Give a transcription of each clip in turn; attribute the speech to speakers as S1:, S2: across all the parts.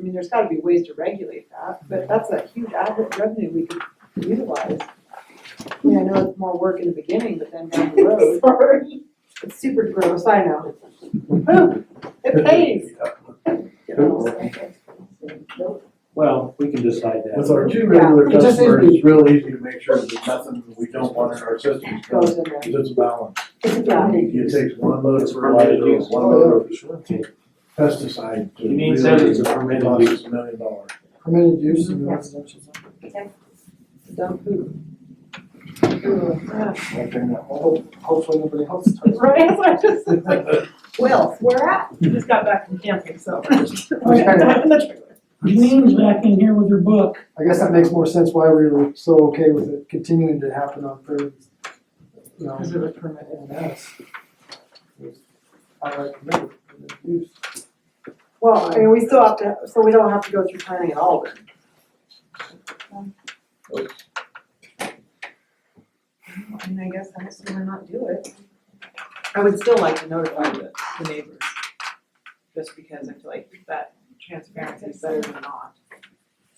S1: mean, there's gotta be ways to regulate that, but that's a huge ad- revenue we could utilize. I mean, I know it's more work in the beginning, but then down the road,
S2: Sorry.
S1: it's super gross, I know. Whew, It pays. You know, so-
S3: Well, we can decide that.
S4: With our two
S1: Yeah,
S4: regular
S1: it just is
S4: customers,
S1: me.
S4: it's real easy to make sure that nothing we don't want in our system
S1: Goes
S4: goes,
S1: in there.
S4: it's balanced.
S1: Yeah.
S4: It takes one load
S3: It's
S4: of fertilizer,
S3: permitted use.
S4: one load of pesticide to
S3: You mean
S4: really
S3: says it's a permitted
S4: cost
S3: use.
S4: us a million dollars.
S5: Permitted use in the residential zone.
S1: Dumb food.
S4: One thing that-
S5: Hope- Hopefully nobody else starts.
S2: Right, that's what I just, it's like,
S1: Will, where at?
S2: just got back from camping, so.
S6: Lean's back in here with her book.
S5: I guess that makes more sense why we were so okay with it continuing to happen on thirds. You know,
S1: Is it a permit?
S5: and that's. I like permitted use.
S1: Well, I mean, we still have to, so we don't have to go through planning at all, then. I mean, I guess I just wanna not do it.
S2: I would still like to notify the, the neighbors, just because I feel like that transparency is better than not.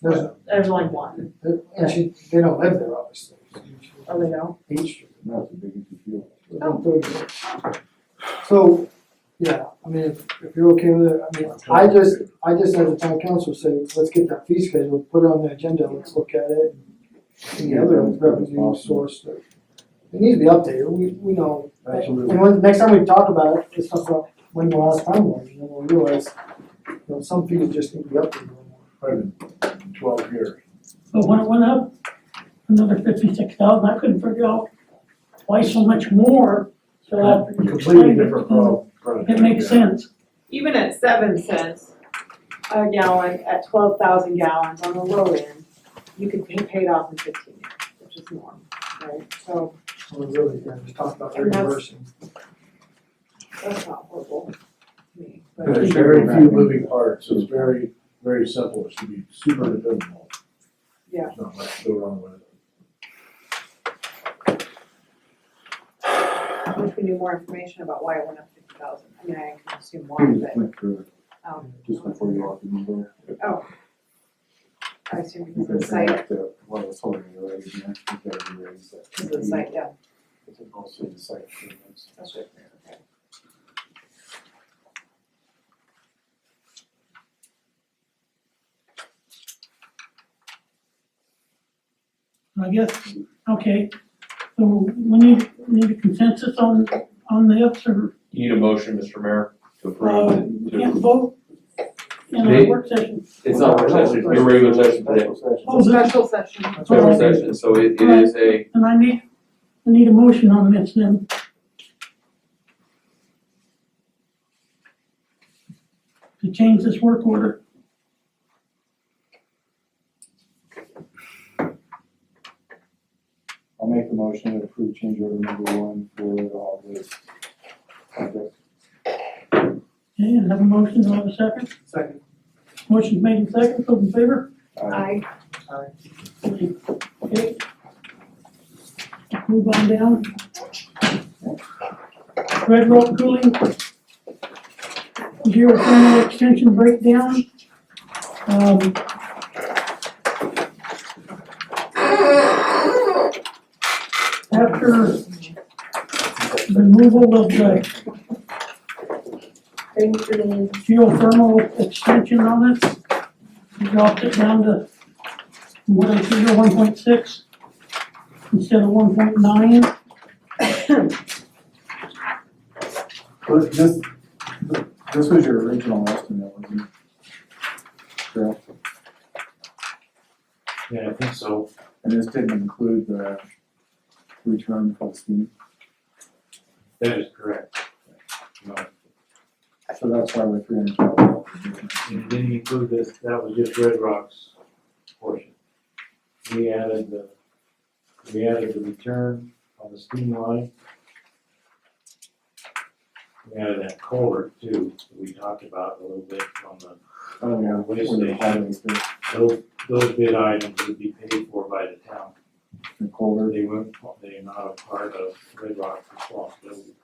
S5: There's,
S2: There's only one.
S5: and she, they don't live there, obviously.
S2: Oh, they don't?
S5: H Street.
S4: Not the biggest deal.
S5: on Third. Oh. So, yeah, I mean, if, if you're okay with it, I mean, I just, I just had the town council say, let's get that fee schedule, put it on the agenda, let's look at it. And the other revenue source, that- it needs to be updated, we, we know.
S4: Absolutely.
S5: And when, next time we talk about it, let's talk about when the last time was, and then we'll realize, you know, some fees just need to be updated.
S4: Probably been Twelve years.
S6: But when it went up another fifty-six thousand, I couldn't figure out why so much more. So after you
S4: Completely
S6: explained it,
S4: different pro- product.
S6: It makes sense.
S2: Even at seven cents a gallon, at twelve thousand gallons on the low end,
S1: You could be paid off in fifteen years, which is normal, right? So
S5: We're really, yeah, just talk about
S1: And that's-
S5: reimbursing.
S1: that's not horrible to me, but
S4: There's very few moving parts, so it's very, very simple, it should be super dependable.
S1: Yeah.
S4: There's Not much to go wrong with it.
S1: I wish we knew more information about why it went up fifty thousand. I mean, I can assume why, but, um,
S7: Hmm. just before you walk in the door.
S1: I assume because
S7: You
S1: of
S7: can
S1: the site,
S7: connect to what was holding you right in there, if that would be raised.
S1: because of the site, yeah.
S7: It's also the site. improvements.
S1: That's right. Okay.
S6: I guess, okay, so we need, need a consensus on, on this or,
S8: You need a motion, Mr. Mayor, to approve.
S6: uh,
S8: it.
S6: can't vote in a
S8: They-
S6: work session.
S8: It's not a session, it's a regular session today,
S7: Special session.
S6: Oh, that's,
S1: Special session.
S6: that's all
S8: regular
S6: right.
S8: session, so it, it is a,
S6: And I need, I need a motion on this then. To change this work order.
S7: I'll make the motion to approve change order number one for all this. project.
S6: Okay, and have a motion, do I have a second?
S5: Second.
S6: Motion's made in second, those in favor?
S7: Uh,
S1: I,
S6: Okay. Move on down. Red Rock Cooling. Zero thermal extension breakdown. Um, After removal of the
S9: Thank you.
S6: geothermal extension on it. We Dropped it down to one figure one point six instead of one point nine.
S7: But this, this was your original estimate, wasn't it? Correct.
S3: Yeah, I think so.
S7: And this didn't include the return plus the,
S3: That is correct. Uh, No,
S7: so that's why we're three hundred twelve.
S3: and it didn't include this, that was just Red Rock's portion. We added the, we added the return on the steam line. We added that culvert too, that we talked about a little bit on the
S7: Oh, yeah.
S3: What is
S7: for the
S3: the-
S7: highways, the-
S3: Those, those bid items would be paid for by the town,
S7: the culvert.
S3: they weren't, they are not a part of Red Rock's responsibility.